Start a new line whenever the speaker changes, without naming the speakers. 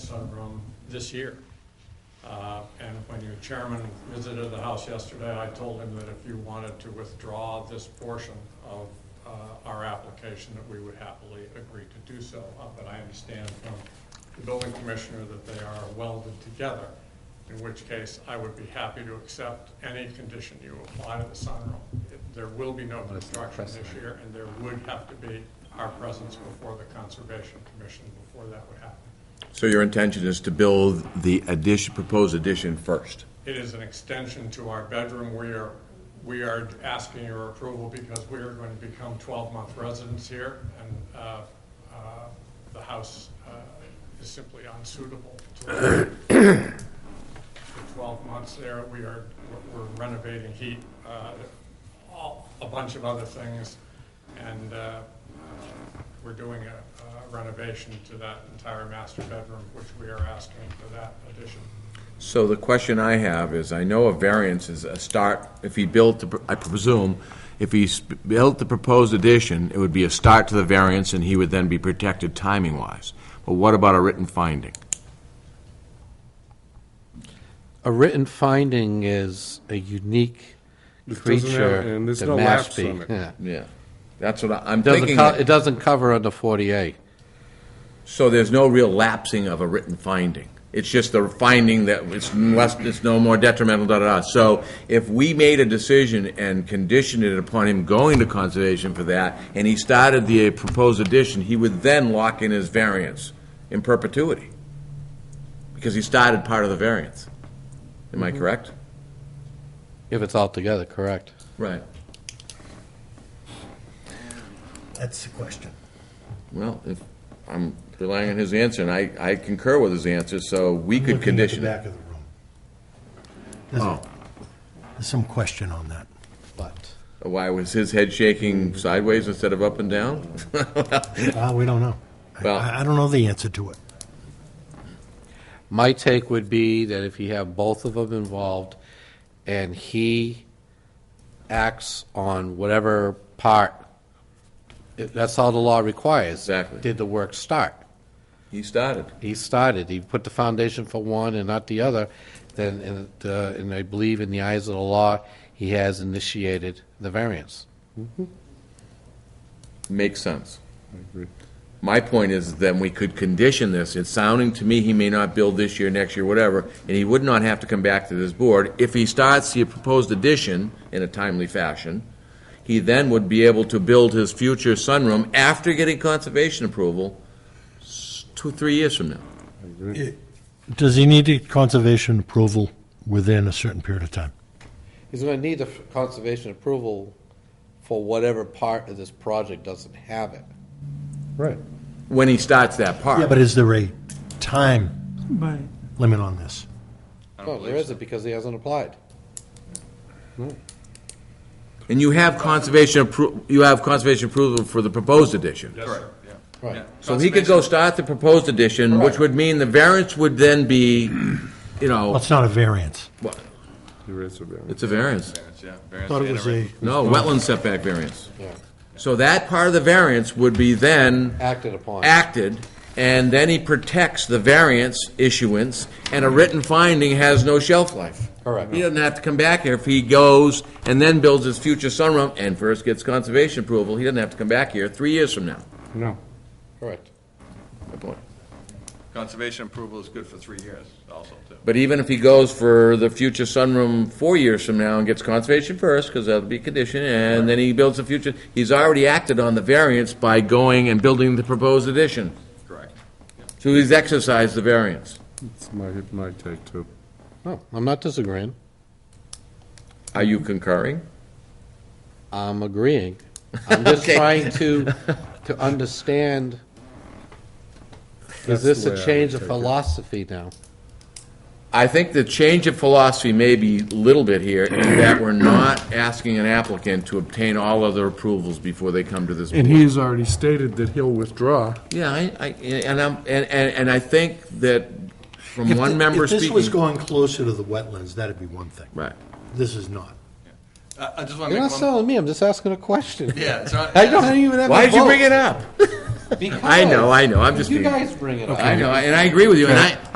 sunroom this year. Uh, And when your chairman visited the house yesterday, I told him that if you wanted to withdraw this portion of uh, our application, that we would happily agree to do so. Uh, But I understand from the building commissioner that they are welded together, in which case I would be happy to accept any condition you apply to the sunroom. It- There will be no
Well, it's not
construction this
precedent.
year, and there would have to be our presence before the Conservation Commission, before that would happen.
So your intention is to build the addition, proposed addition first?
It is an extension to our bedroom. We are, we are asking your approval because we are going to become 12-month residents here, and uh, uh, the house uh, is simply unsuitable to for 12 months there. We are, we're renovating heat, uh, all- a bunch of other things, and uh, we're doing a a renovation to that entire master bedroom, which we are asking for that addition.
So the question I have is, I know a variance is a start, if he built, the pr- I presume, if he s- built the proposed addition, it would be a start to the variance, and he would then be protected timing-wise. But what about a written finding?
A written finding is a unique
It doesn't have-
creature
and there's
to
no lapse
Mashpee.
on it.
Yeah.
Yeah. That's what I- I'm
Doesn't
thinking.
co-
that-
it doesn't cover under 40A.
So there's no real lapsing of a written finding. It's just the finding that it's less, it's no more detrimental, da-da-da. So if we made a decision and conditioned it upon him going to conservation for that, and he started the uh, proposed addition, he would then lock in his variance in perpetuity, because he started part of the variance. Am I correct?
If it's all together, correct.
Right.
That's the question.
Well, if, I'm relying on his answer, and I, I concur with his answer, so we
Looking at
could
the
condition it.
Back of the room.
Oh,
There's some question on that.
But
Why was his head shaking sideways instead of up and down?
Uh, we don't know. I-
Well-
I, I don't know the answer to it.
my take would be that if you have both of them involved and he acts on whatever part, it- that's all the law requires.
Exactly.
Did the work start?
he started.
he started, he put the foundation for one and not the other, then, and, uh, and I believe in the eyes of the law, he has initiated the variance.
Makes sense. My point is then we could condition this. It's sounding to me he may not build this year, next year, whatever, and he would not have to come back to this board. If he starts the proposed addition in a timely fashion, he then would be able to build his future sunroom after getting conservation approval s- two, three years from now.
Does he need to get conservation approval within a certain period of time?
He's gonna need the conservation approval for whatever part of this project doesn't have it.
Right.
When he starts that part.
But is there a time
Right.
limit on this?
No, there isn't, because he hasn't applied.
And you have conservation appro, you have conservation approval for the proposed addition?
Correct.
Right.
So he could go start the proposed addition, which would mean the variance would then be, you
Well,
know,
it's not a variance.
There is a variance.
it's a variance.
Yeah,
I
variance
thought it
and
was
a re-
a,
No, wetland setback variance.
Yeah.
So that part of the variance would be then
Acted upon.
acted, and then he protects the variance issuance, and a written finding has no shelf life.
Correct.
He doesn't have to come back here if he goes and then builds his future sunroom and first gets conservation approval, he doesn't have to come back here three years from now.
No.
Correct.
Good point.
Conservation approval is good for three years also, too.
But even if he goes for the future sunroom four years from now and gets conservation first, because that'll be conditioned, and then he builds the future, he's already acted on the variance by going and building the proposed addition.
Correct.
So he's exercised the variance.
It's my, my take too.
No, I'm not disagreeing,
Are you concurring?
I'm agreeing. I'm just
Okay.
trying to, to understand, is
That's
this
the way I
a
would
change of
take it.
philosophy now?
I think the change of philosophy may be a little bit here, in that we're not asking an applicant to obtain all other approvals before they come to this board.
And he's already stated that he'll withdraw.
Yeah, I, I, and I'm, and, and and I think that from
if
one
th-
member
If this was
speaking.
going closer to the wetlands, that'd be one thing.
Right.
This is not.
I I
You're
just want to
not
make one.
selling me, I'm just asking a question.
Yeah, it's not-
I don't even have a vote.
Why'd you bring it up? I know, I know, I'm just
You
being,
guys bring it up.
I know, and I agree with you, and I,